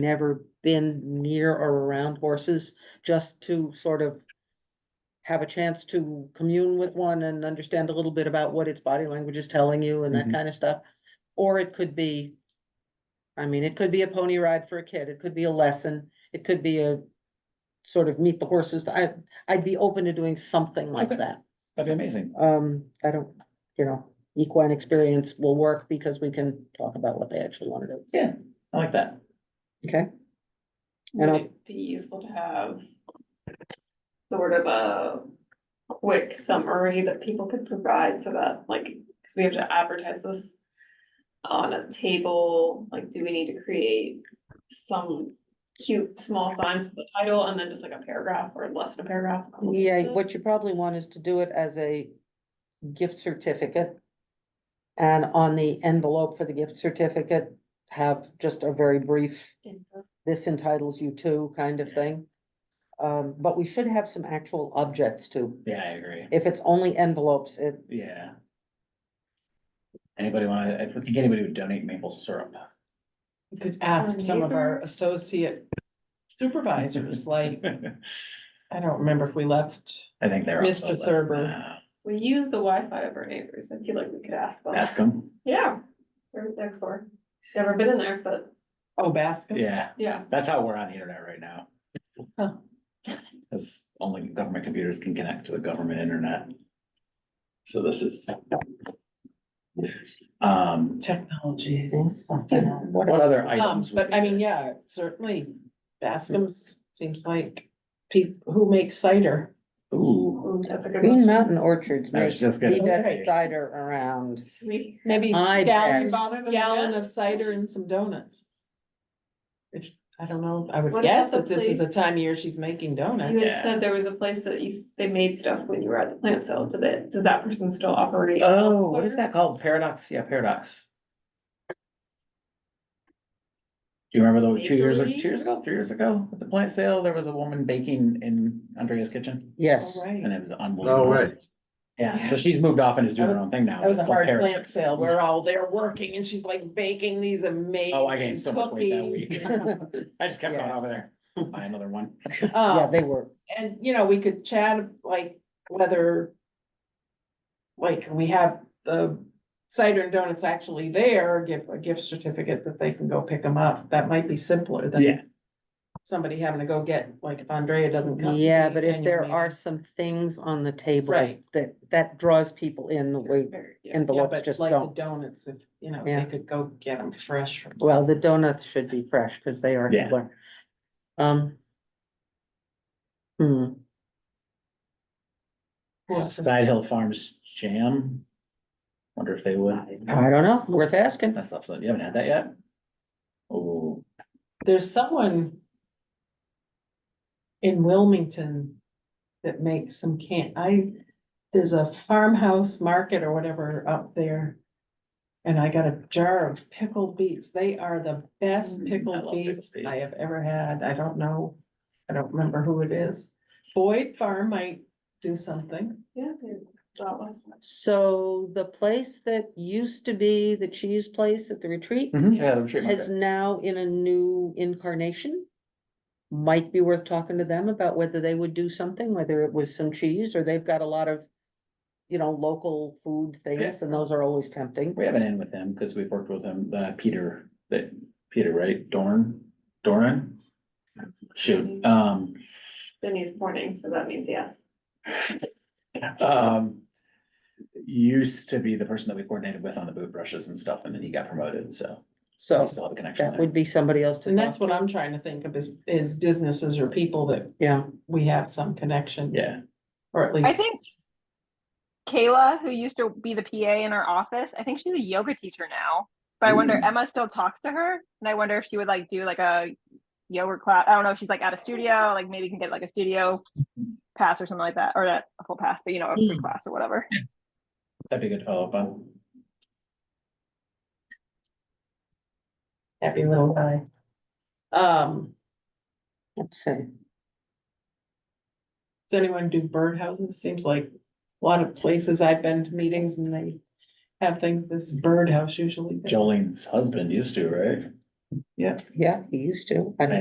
never been near or around horses, just to sort of have a chance to commune with one and understand a little bit about what its body language is telling you and that Mhm. kind of stuff. Or it could be, I mean, it could be a pony ride for a kid, it could be a lesson, it could be a sort of meet the horses. I, I'd be open to doing something like Okay. that. That'd be amazing. Um, I don't, you know, equine experience will work because we can talk about what they actually want to do. Yeah, I like that. Okay. Would I'll- it be useful to have sort of a quick summary that people could provide so that, like, because we have to advertise this on a table, like, do we need to create some cute small sign for the title and then just like a paragraph or less than a paragraph? Yeah, what you probably want is to do it as a gift certificate. And on the envelope for the gift certificate, have just a very brief, this entitles you to kind of thing. Um, but we should have some actual objects too. Yeah, I agree. If it's only envelopes, it, Yeah. Anybody wanna, I think anybody would donate maple syrup. We Could ask some of our associate supervisors, like, I I don't remember if we left. think they're. on the Mr. list Thurber. now. We use the Wi-Fi of our neighbors. I feel like we could ask them. Ask them. Yeah, they're next door. Never been in there, but Oh, Bascom? Yeah, yeah. that's how we're on the internet right now. Huh. Cause only government computers can connect to the government internet. So this is. Um, Technologies. what other Um, items? would but be Mm-hmm. I mean, there? yeah, certainly Bascom's seems like people who make cider. Ooh. Mm, That's a good Green one. Mountain Orchards I was makes the just gonna best say. cider around. We Maybe I gallon, bet. gallon of cider and some donuts. If, I don't know, I would What guess about that the this is a place- time of year she's making You donuts. Yeah. had said there was a place that you, s- they made stuff when you were at the plant sale, did it, does that person still operate? Oh, what is elsewhere? that called? Paradox, yeah, paradox. Do you remember the two years, ag- two Bakery? years ago, three years ago, at the plant sale, there was a woman baking in Andrea's kitchen? Yes, Oh, All right. And it was unbelievable. way. Yeah, so she's moved off and is doing her own thing now. That was a It's called hard Paradox. plant sale. We're all there working and she's like baking these amazing Oh, I gained so much weight that cookies. week. I just kept going over there, buy another one. yeah, Um, they were. and you know, we could chat like whether. Like we have the cider and donuts actually there, give a gift certificate that they can go pick them up. That might be simpler than Yeah, somebody having to go get, like if Andrea doesn't come. to Yeah, the but if annual there meeting. are some things on the table. Right. That, that draws people in the way Very- yeah. Yeah, envelopes but just like the don't. donuts, if, you know, Yeah. they could go get them fresh from. Well, the donuts should be fresh because they are. Yeah. Hibbler. Um. Hmm, Side Hill Farms Jam. Wonder if they would. I don't know, worth asking. That stuff's, you haven't had that yet? Oh, There's someone in Wilmington that makes some can, I, there's a farmhouse market or whatever up there. And I got a jar of pickled beets. They are the best Mm, I pickled love pickled beets I beets. have ever had. I don't know, I don't remember who it is. Boyd Farm might do something. Yeah, they- that was one. So the place that used to be the cheese place at the retreat Mhm, yeah, the retreat is market. now in a new incarnation. Might be worth talking to them about whether they would do something, whether it was some cheese or they've got a lot of. You know, local food things and those are always tempting. We have an in with him because we've worked with him, uh, Peter, that, Peter, right? Dorn, Doran? Shoot, um, Then he's morning, so that means yes. um. Used to be the person that we coordinated with on the boot brushes and stuff, and then he got promoted, so So we still have a connection that there. would be somebody else to. And talk that's what I'm trying to think of is, is businesses or people that Yeah, we have some connection. Yeah, Or at least. I think Kayla, who used to be the PA in our office, I think she's a yoga teacher now. But I wonder Ooh. Emma still talks to her, and I wonder if she would like do like a yoga class. I don't know if she's like at a studio, like maybe you can get like a studio pass or something like that, or not a full pass, but you know, a free class or whatever. that'd be a good follow up on. Happy little guy. Um, let's see. does anyone do birdhouses? Seems like a lot of places I've been to meetings and they have things, this birdhouse usually. Jolene's husband used to, right? Yeah, he used to. I don't